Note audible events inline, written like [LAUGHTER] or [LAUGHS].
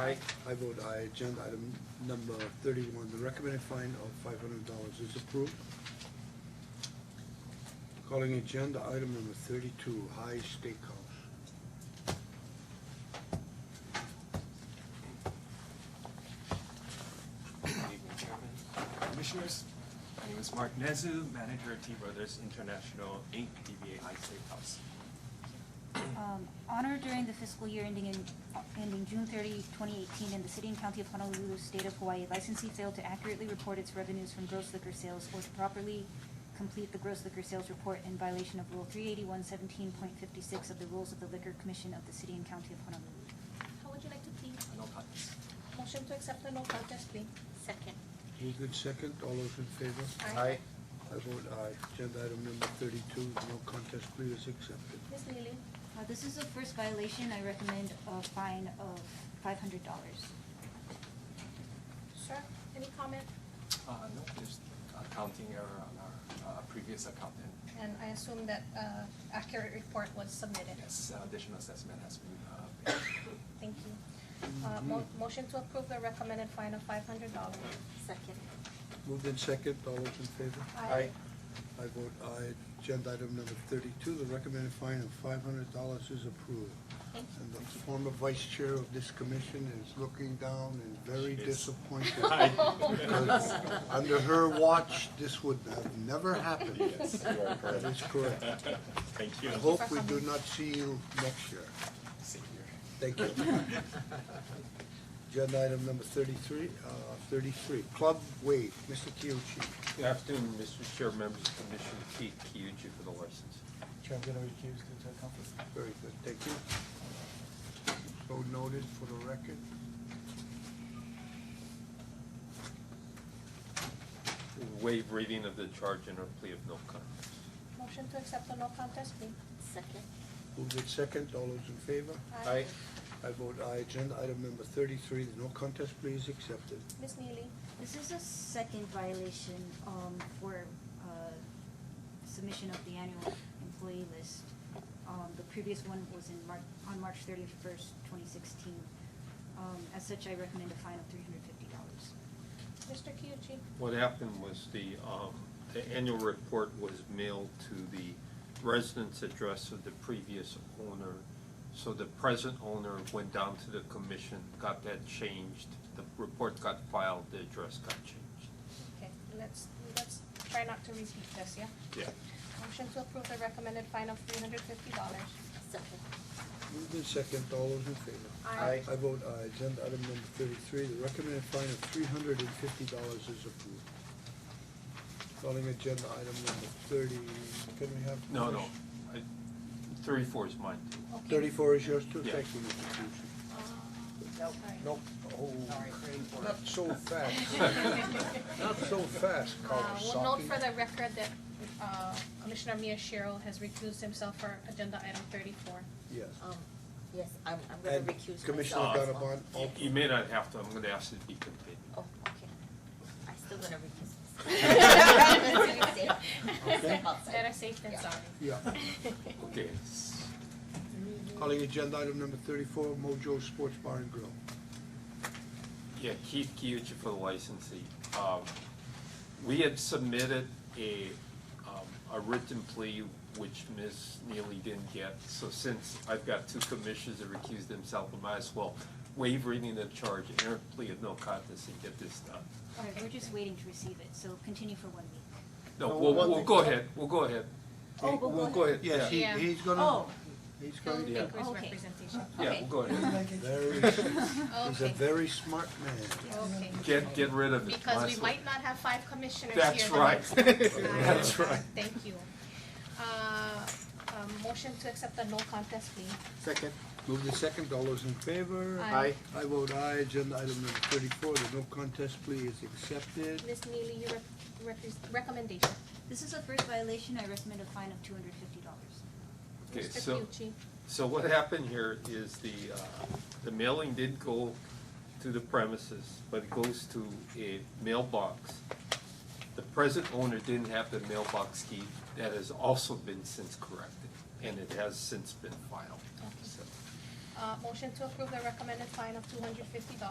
Aye. I vote aye. Agenda item number thirty-one, the recommended fine of five hundred dollars is approved. Calling agenda item number thirty-two, High Steakhouse. Good evening, Chairman, Commissioners. My name is Mark Nezu, manager at T Brothers International, Inc., DBA High Safe House. Um, Honor during the fiscal year ending in, ending June 30, 2018, in the city and county of Honolulu, state of Hawaii, licensee failed to accurately report its revenues from gross liquor sales or to properly complete the gross liquor sales report in violation of Rule 38117.56 of the Rules of the Liquor Commission of the city and county of Honolulu. How would you like to plead? No comments. Motion to accept the no contest plea. Second. Moved in second, all those in favor? Aye. I vote aye. Agenda item number thirty-two, no contest plea is accepted. Ms. Neely, Uh, This is the first violation. I recommend a fine of $500. sir, any comment? Uh, no, there's accounting error on our uh, previous accountant. And I assume that uh, accurate report was submitted. Yes, uh, additional assessment has been, uh, made. Thank you. Uh, mo- Motion to approve the recommended fine of five hundred dollars. Second. Moved in second, all those in favor? Aye. I vote aye. Agenda item number thirty-two, the recommended fine of five hundred dollars is approved. Thank you. And the former vice chair of this commission is looking down and very She is. [LAUGHS] disappointed. because Aye. Under her watch, this would have never happened. Yes, you are correct. That is correct. Thank I you. hope we do not see you next year. See you. Thank you. Agenda item number thirty-three, uh, thirty-three, Club Wave, Mr. Kiuchi. Good afternoon, Mr. Chair, members of the Commission, Keith Kyuchi for the license. Chair, I'm gonna recuse due to conflict. Very good, thank you. So noted for the record. Waive reading of the charge and a plea of no contest. Motion to accept the no contest plea. Second. Moved in second, all those in favor? Aye. I vote aye. Agenda item number thirty-three, the no contest plea is accepted. Ms. Neely, This is a second violation um, for uh, submission of the annual employee list. Um, The previous one was in Mar, on March thirty-first, twenty sixteen. Um, As such, I recommend a fine of three hundred fifty dollars. Mr. Kyuchi, What happened was the, um, the annual report was mailed to the residence address of the previous owner. So the present owner went down to the commission, got that changed, the report got filed, the address got changed. okay, let's, let's try not to repeat this, yeah? Yeah. Motion to approve the recommended fine of three hundred fifty dollars. Second. Moved in second, all those in favor? Aye. I vote aye. Agenda item number thirty-three, the recommended fine of three hundred and fifty dollars is approved. Calling agenda item number thirty, can we have? No, no, I, thirty-four is mine too. Okay. Thirty-four is yours too? Yeah. Thank you, Mr. Fuji. Uh, Nope. Nope. Oh, not so fast. Not so fast, Kawasaki. Uh, We'll note for the record that uh, Commissioner Mia Cheryl has recused himself for agenda item thirty-four. Yes. Um, yes, I'm, I'm gonna And recuse myself. Commissioner myself. Gannabon, You- You may not have to, I'm gonna ask it to be continued. Oh, okay. I'm still gonna [LAUGHS] recuse myself. [LAUGHS] Okay. Better safe than Yeah. sorry. yeah. Okay, it's- Calling agenda item number thirty-four, Mojo Sports Bar and Grill. yeah, Keith Kyuchi for the licensee. Um, We had submitted a, um, a written plea which Ms. Neely didn't get. So since I've got two commissioners that recused themselves, I might as well waive reading the charge, enter plea of no contest and get this done. All right, we're just waiting to receive it, so continue for one week. No, No, we'll, one we'll thing- go ahead, we'll go ahead. Oh, We'll we'll go go ahead, Yes, yeah, he, Yeah. he's gonna, Oh. he's He'll gonna. make Yeah. his Okay. representation. yeah, we'll go ahead. Very, [LAUGHS] he's a Okay, very smart man. okay. Get, get rid of it. Because we honestly. might not have five commissioners here. That's the right. [LAUGHS] next time. That's right. Thank you. Uh, um, Motion to accept the no contest plea. Second. Move the second, all those in favor? Aye. I vote aye, agenda item number thirty-four, the no contest plea is accepted. Ms. Neely, your rep- repres- recommendation. This is the first violation. I recommend a fine of two hundred fifty dollars. Okay, Mr. so- Kyuchi. So what happened here is the, uh, the mailing did go to the premises, but it goes to a mailbox. The present owner didn't have the mailbox key, that has also been since corrected, and it has since been filed, so. Uh, Uh, motion to approve the recommended fine of two hundred fifty dollars